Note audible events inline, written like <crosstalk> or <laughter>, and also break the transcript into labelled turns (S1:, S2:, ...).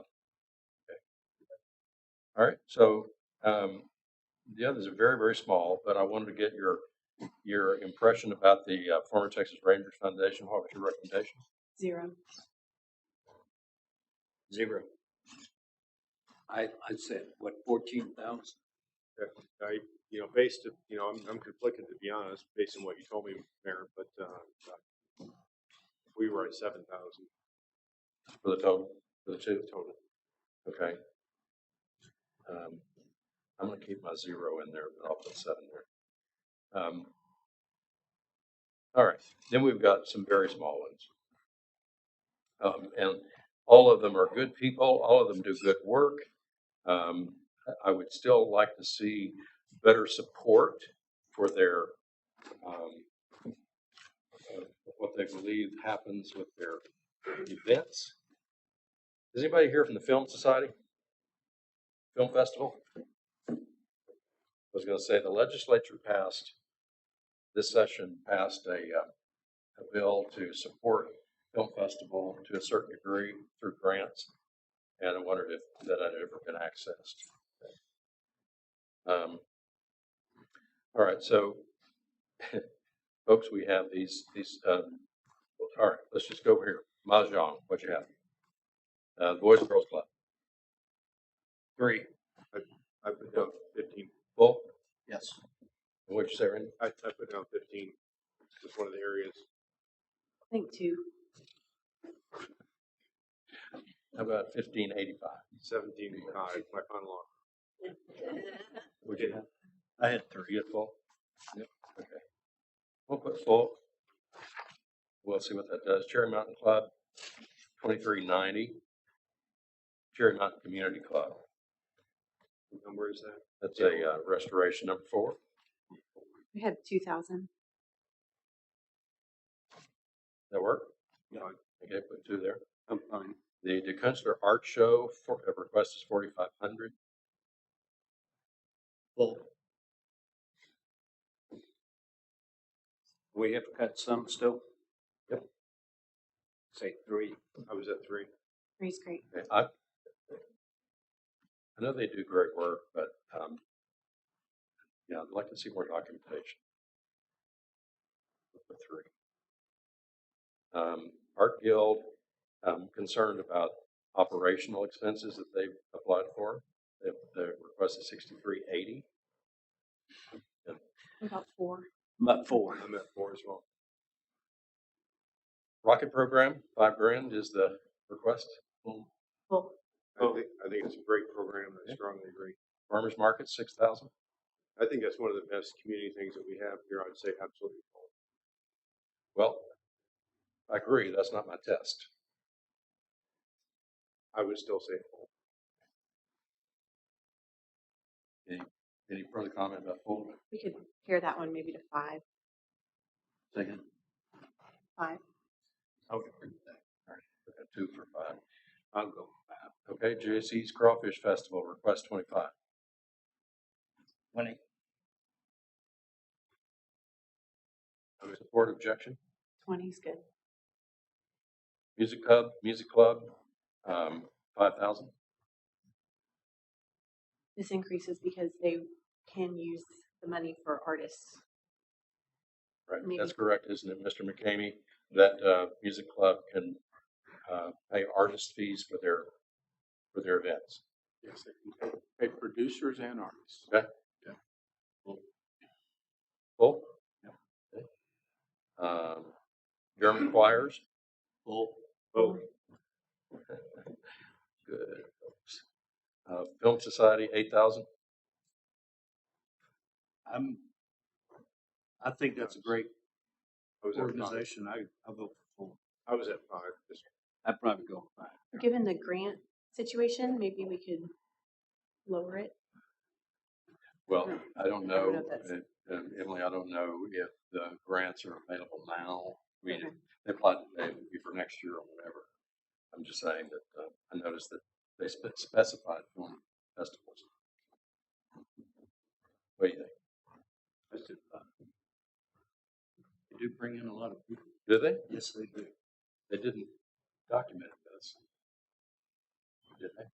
S1: All right, so, um, the others are very, very small, but I wanted to get your, your impression about the uh, former Texas Rangers Foundation. What was your recommendation?
S2: Zero.
S3: Zero. I, I'd say, what, fourteen thousand?
S4: I, you know, based, you know, I'm, I'm conflicted to be honest, based on what you told me, Mayor, but, uh, we were at seven thousand
S1: For the total, for the two?
S4: total.
S1: Okay. Um, I'm gonna keep my zero in there, but I'll put seven there. Um, all right, then we've got some very small ones. Um, and all of them are good people, all of them do good work. Um, I- I would still like to see better support for their, um, uh, what they believe happens with their events. Is anybody here from the Film Society? Film Festival? I was going to say the legislature passed, this session passed a, uh, a bill to support Film Festival to a certain degree through grants. And I wondered if that had ever been accessed. Um, All right, so <laughs> folks, we have these, these, um, all right, let's just go over here. Mahjong, what you have? Uh, Boys and Girls Club. Three.
S4: I put down fifteen,
S1: Bull,
S3: Yes.
S1: what'd you say, Randy?
S4: I, I put down fifteen, was one of the areas.
S2: I think two.
S1: How about fifteen eighty-five?
S4: Seventeen, five, my final offer.
S1: Would
S4: you
S1: have? I had three. You had full? Yep. Okay. We'll put full. We'll see what that does. Cherry Mountain Club, twenty-three ninety. Cherry Mountain Community Club,
S4: What Number is that?
S1: that's a uh, restoration number four.
S2: We had two thousand.
S1: That work?
S3: Yeah.
S1: Okay, put two there.
S3: I'm fine.
S1: The DeKunsler Art Show, for, uh, request is forty-five hundred.
S3: Full. We have cut some still?
S1: Yep.
S3: Say three.
S4: I was at three.
S2: Three's great.
S1: I, I know they do great work, but, um, yeah, I'd like to see more documentation. For three. Um, Art Guild, I'm concerned about operational expenses that they've applied for. They, the request is sixty-three eighty.
S2: What About four.
S3: I'm at four.
S4: I'm at four as well.
S1: Rocket program, five grand is the request.
S2: Well,
S4: I think, I think it's a great program. I strongly agree.
S1: Farmers market, six thousand.
S4: I think that's one of the best community things that we have here. I'd say absolutely. full.
S1: Well, I agree, that's not my test.
S4: I would still say full.
S1: Any further comment about Pullman?
S2: we could pair that one maybe to five.
S1: Second.
S2: Five.
S1: I would agree with that. All right, we got Two for five. I'll go with five. Okay, JC's Crawfish Festival, request twenty-five.
S3: Twenty.
S1: Support objection.
S2: Twenty's good.
S1: Music Hub, Music Club, um, five thousand.
S2: This increases because they can use the money for artists.
S1: Right,
S2: Maybe.
S1: that's correct, isn't it, Mr. McCamey? That, uh, Music Club can, uh, pay artist fees for their, for their events.
S5: Yes, they can pay- pay producers and artists.
S1: Full?
S5: Yep.
S1: Okay. Um, German choirs,
S3: Full.
S4: Oh,
S1: Good. folks. Uh, Film Society, eight thousand.
S3: I'm, I think that's a great
S4: I was at five.
S3: organization. I, I vote for four.
S4: I was at five. Just-
S3: I'd probably go five.
S2: Given the grant situation, maybe we could lower it.
S1: Well,
S2: No,
S1: I don't
S2: I don't
S1: know,
S2: know if that's-
S1: uh, um, Emily, I don't know if the grants are available now. I mean,
S2: Okay.
S1: they applied today, it would be for next year or whatever. I'm just saying that, uh, I noticed that they spe- specified film festivals. What do you think?
S3: I said five. They do bring in a lot of people.
S1: Do they?
S3: Yes, they do.
S1: They didn't document this. Did they?